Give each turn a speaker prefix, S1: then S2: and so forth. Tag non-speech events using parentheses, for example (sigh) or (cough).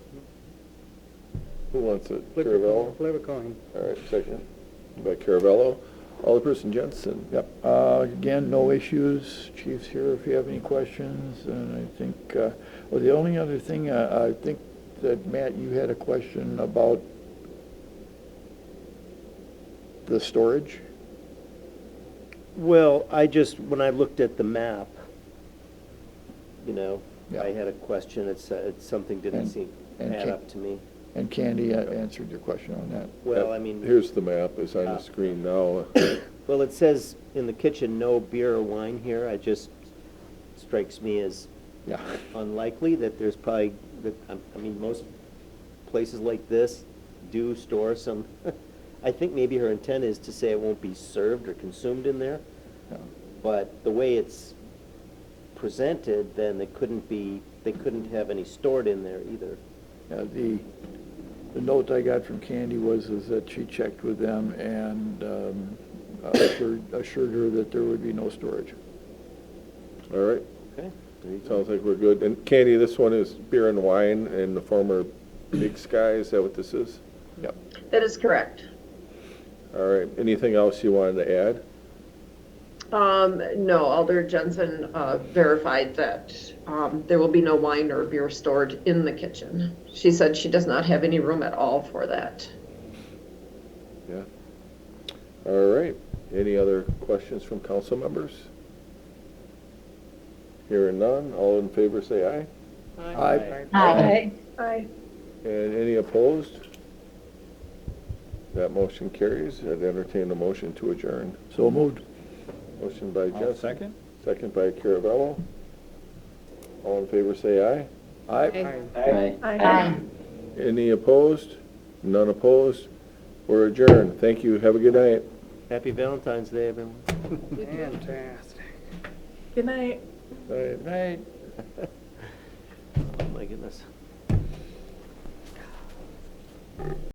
S1: Who wants it?
S2: Flip a coin,
S1: Caravello?
S2: Flip a coin.
S1: All right, second by Caravello. Alderperson Jensen.
S3: Yep, uh, again, no issues, chief's here if you have any questions, and I think, uh, well, the only other thing, uh, I think that, Matt, you had a question about the storage?
S4: Well, I just, when I looked at the map, you know,
S3: Yeah.
S4: I had a question, it's, uh, it's, something didn't
S3: And-
S4: seem
S3: and
S4: add
S3: can-
S4: up to me.
S3: And Candy uh, answered your question on that.
S4: Well, I mean,
S1: Here's the map, it's on the
S4: Ah.
S1: screen now.
S4: well, it says in the kitchen, no beer or wine here, I just, strikes me as
S3: Yeah,
S4: unlikely that there's probably, that, I I mean, most places like this do store some, (laughs) I think maybe her intent is to say it won't be served or consumed in there,
S3: yeah.
S4: But the way it's presented, then they couldn't be, they couldn't have any stored in there either.
S3: Yeah, the, the note I got from Candy was, is that she checked with them and, um, assured, assured her that there would be no storage.
S1: All right,
S4: Okay.
S1: sounds like we're good. And Candy, this one is beer and wine in the former Big Sky, is that what this is?
S3: Yep.
S5: That is correct.
S1: All right, anything else you wanted to add?
S5: Um, no, Alder Jensen, uh, verified that, um, there will be no wine or beer stored in the kitchen. She said she does not have any room at all for that.
S1: Yeah. All right, any other questions from council members? Hearing none, all in favor say aye.
S3: Aye.
S6: Aye.
S5: Aye.
S1: And any opposed? That motion carries. I'd entertain a motion to adjourn.
S3: So moved.
S1: Motion by Jensen. Second. Second by Caravello. All in favor, say aye. Aye.
S6: Aye.
S1: Any opposed? None opposed? We're adjourned. Thank you. Have a good night.
S4: Happy Valentine's Day, everyone.
S2: Fantastic.
S6: Good night.
S1: Night.
S3: Right.
S4: Oh, my goodness.